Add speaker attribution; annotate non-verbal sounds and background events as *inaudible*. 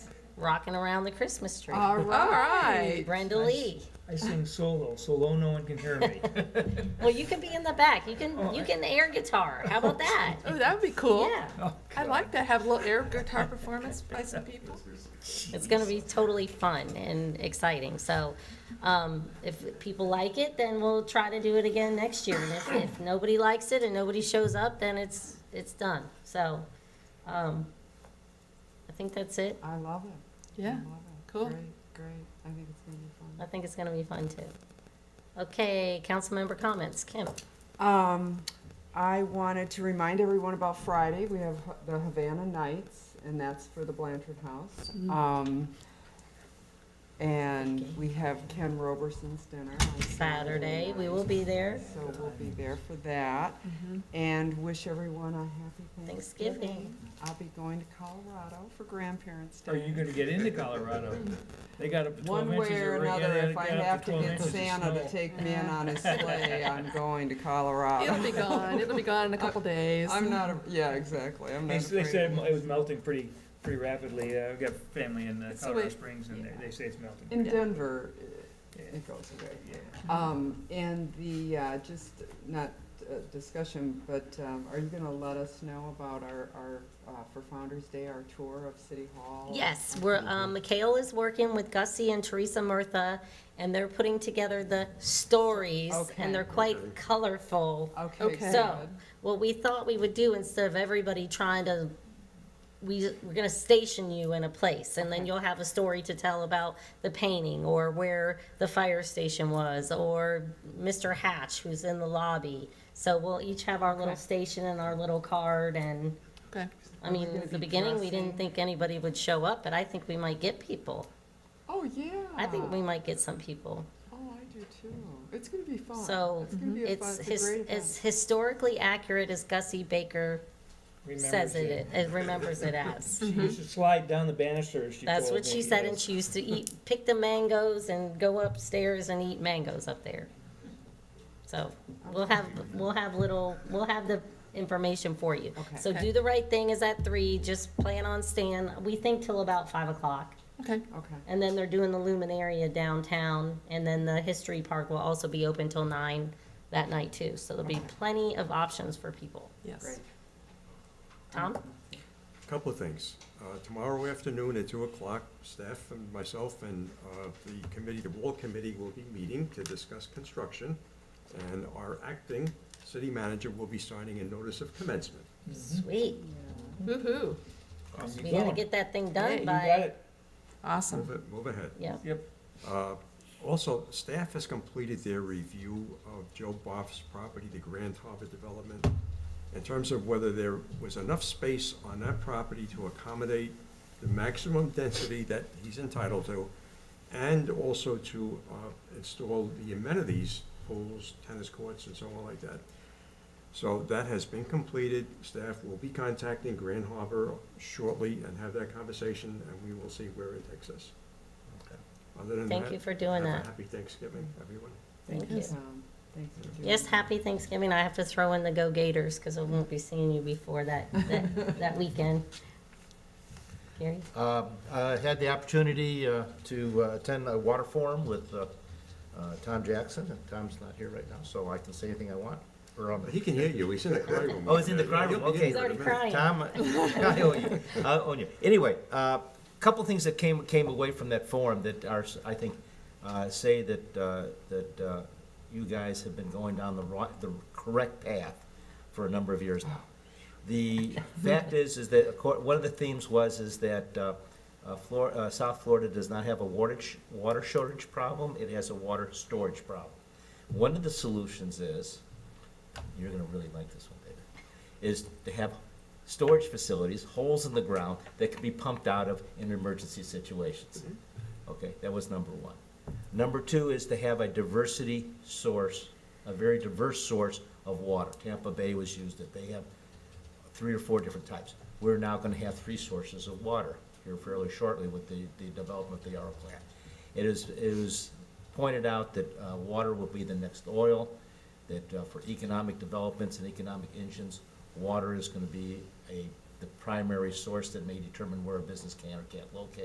Speaker 1: Rocking Around the Christmas Tree. Mm,
Speaker 2: All
Speaker 3: *laughs* All
Speaker 2: right.
Speaker 3: right.
Speaker 1: Brenda Lee.
Speaker 4: I sing solo, so low no one can hear
Speaker 1: *laughs*
Speaker 4: me.
Speaker 1: Well, you can be in the back. You can you can air guitar. How about that?
Speaker 3: Oh, that would be *laughs* cool.
Speaker 1: Yeah,
Speaker 4: Oh,
Speaker 3: I'd like to have a little air guitar performance by some people.
Speaker 1: it's going to be totally fun and exciting. So, um, if people like it, then we'll try to do it again next year. And if, if nobody likes it and nobody shows up, then it's it's done. So, um, I think that's it.
Speaker 2: I love it. I
Speaker 3: Yeah,
Speaker 2: love it.
Speaker 3: Cool.
Speaker 2: Great, great. I think it's gonna be
Speaker 1: I think it's going to be fun too. Okay, council member comments. Kim.
Speaker 2: fun. Um, I wanted to remind everyone about Friday. We have Ha- the Havana Nights, and that's for the Blanchard House. Um, and we have Ken Roberson's dinner on
Speaker 1: Saturday, we
Speaker 2: night,
Speaker 1: will be there.
Speaker 2: So we'll be there for that, and wish everyone a happy Thanksgiving.
Speaker 1: Thanksgiving.
Speaker 2: I'll be going to Colorado for Grandparents' Day.
Speaker 4: Are you gonna get into Colorado? They got up to twelve
Speaker 2: One
Speaker 4: inches.
Speaker 2: way or
Speaker 4: of ra- yeah,
Speaker 2: another,
Speaker 4: they
Speaker 2: if I
Speaker 4: got up
Speaker 2: have to
Speaker 4: 12
Speaker 2: get
Speaker 4: inches of
Speaker 2: Santa to
Speaker 4: snow.
Speaker 2: take me in on
Speaker 4: *laughs*
Speaker 2: his sleigh, I'm going to Colorado.
Speaker 3: it'll be gone. It'll be gone in a couple days.
Speaker 2: I'm not, a- yeah, exactly, I'm
Speaker 4: They
Speaker 2: not
Speaker 4: s- They said it mo-
Speaker 2: afraid.
Speaker 4: it was melting pretty, pretty rapidly. Uh, I've got family in uh,
Speaker 3: It's the
Speaker 4: Colorado
Speaker 3: way-
Speaker 4: Springs and they, they say it's melting.
Speaker 2: In
Speaker 3: Yeah.
Speaker 2: Denver,
Speaker 4: Yeah.
Speaker 2: it- it goes away.
Speaker 4: Yeah.
Speaker 2: Um, and the, uh, just, not uh, discussion, but, um, are you gonna let us know about our, our, uh, for Founder's Day, our tour of City Hall?
Speaker 1: Yes, we're, um, Mikhail is working with Gussie and Teresa Murtha, and they're putting together the stories,
Speaker 2: Okay.
Speaker 1: and they're quite colorful.
Speaker 2: Okay,
Speaker 3: Okay.
Speaker 1: So,
Speaker 2: good.
Speaker 1: what we thought we would do, instead of everybody trying to, we, we're gonna station you in a place, and then you'll have a story to tell about the painting, or where the fire station was, or Mr. Hatch, who's in the lobby. So we'll each have our little
Speaker 2: Okay.
Speaker 1: station and our little card, and,
Speaker 3: Okay.
Speaker 1: I
Speaker 2: Are we
Speaker 1: mean,
Speaker 2: gonna
Speaker 1: at the
Speaker 2: be
Speaker 1: beginning, we
Speaker 2: dressing?
Speaker 1: didn't think anybody would show up, but I think we might get people.
Speaker 2: Oh, yeah.
Speaker 1: I think we might get some people.
Speaker 2: Oh, I do too. It's gonna be fun.
Speaker 1: So,
Speaker 2: It's gonna be a fun,
Speaker 1: It's
Speaker 2: it's a
Speaker 1: his, as
Speaker 2: great event.
Speaker 1: historically accurate as Gussie Baker says
Speaker 4: Remembers
Speaker 1: it, it remembers it as.
Speaker 4: *laughs* She
Speaker 2: Mm-hmm.
Speaker 4: used to slide down the banisters. she
Speaker 1: That's
Speaker 4: told
Speaker 1: what
Speaker 4: me,
Speaker 1: she said, and
Speaker 4: yes.
Speaker 1: she used to eat, pick the mangoes and go upstairs and eat mangoes up there. So, we'll have, we'll have little, we'll have the information for you.
Speaker 2: Okay.
Speaker 1: So do the right thing is at three, just plan on staying, we think till about five o'clock.
Speaker 3: Okay.
Speaker 2: Okay.
Speaker 1: And then they're doing the Luminaria downtown, and then the History Park will also be open till nine that night too. So there'll be
Speaker 2: Okay.
Speaker 1: plenty of options for people.
Speaker 3: Yes.
Speaker 1: Tom?
Speaker 5: Couple of things. Uh, Tomorrow afternoon at 2 o'clock, staff and myself and uh, the committee, the wall committee will be meeting to discuss construction, and our acting city manager will be signing a notice of commencement.
Speaker 1: Sweet.
Speaker 3: Woohoo.
Speaker 4: And Oh, you
Speaker 1: We
Speaker 4: go.
Speaker 1: gotta get that thing done
Speaker 3: You
Speaker 4: You got
Speaker 1: by,
Speaker 4: it.
Speaker 3: Awesome.
Speaker 5: Move it, move ahead.
Speaker 1: yeah.
Speaker 4: Yep.
Speaker 5: Uh, Also, staff has completed their review of Joe Boff's property, the Grand Harbor Development, in terms of whether there was enough space on that property to accommodate the maximum density that he's entitled to, and also to uh, install the amenities, pools, tennis courts, and so on like that. So that has been completed. Staff will be contacting Grand Harbor shortly and have that conversation, and we will see where it takes us. Other than
Speaker 1: Thank
Speaker 5: that,
Speaker 1: you for doing
Speaker 5: have a
Speaker 1: that.
Speaker 5: Happy Thanksgiving, everyone.
Speaker 1: Thank you.
Speaker 2: Yes, um, thanks for doing
Speaker 1: Yes,
Speaker 2: that.
Speaker 1: happy Thanksgiving. I have to throw in the Go Gators, because I won't be seeing you before that, that, that weekend. Gary?
Speaker 6: Um, I had the opportunity uh, to uh, attend a water forum with uh, uh, Tom Jackson, and Tom's not here right now, so I can say anything I want. Or, um,
Speaker 5: He can hear you, he's in the cry room.
Speaker 6: *laughs* Oh, he's in the cry room,
Speaker 5: He'll be in
Speaker 6: okay.
Speaker 1: He's
Speaker 5: here in a
Speaker 1: already
Speaker 5: minute.
Speaker 1: crying. *laughs*
Speaker 6: Tom, *laughs* I owe you, I owe you. Anyway, a couple things that came, came away from that forum that are, I think, uh, say that, uh, that uh, you guys have been going down the right, the correct path for a number of years now.
Speaker 1: *laughs*
Speaker 6: The fact is, is that, acco- one of the themes was, is that uh, uh, Flor, uh, South Florida does not have a water, sh- water shortage problem, it has a water storage problem. One of the solutions is, you're gonna really like this one, David, is to have storage facilities, holes in the ground, that can be pumped out of in emergency situations. Okay, that was number one. Number two is to have a diversity source, a very diverse source of water. Tampa Bay was used, that they have three or four different types. We're now gonna have three sources of water here fairly shortly with the, the development of the Yarrow plant. It is, it was pointed out that, uh, water will be the next oil, that uh, for economic developments and economic engines, water is gonna be a, the primary source that may determine where a business can or can't locate.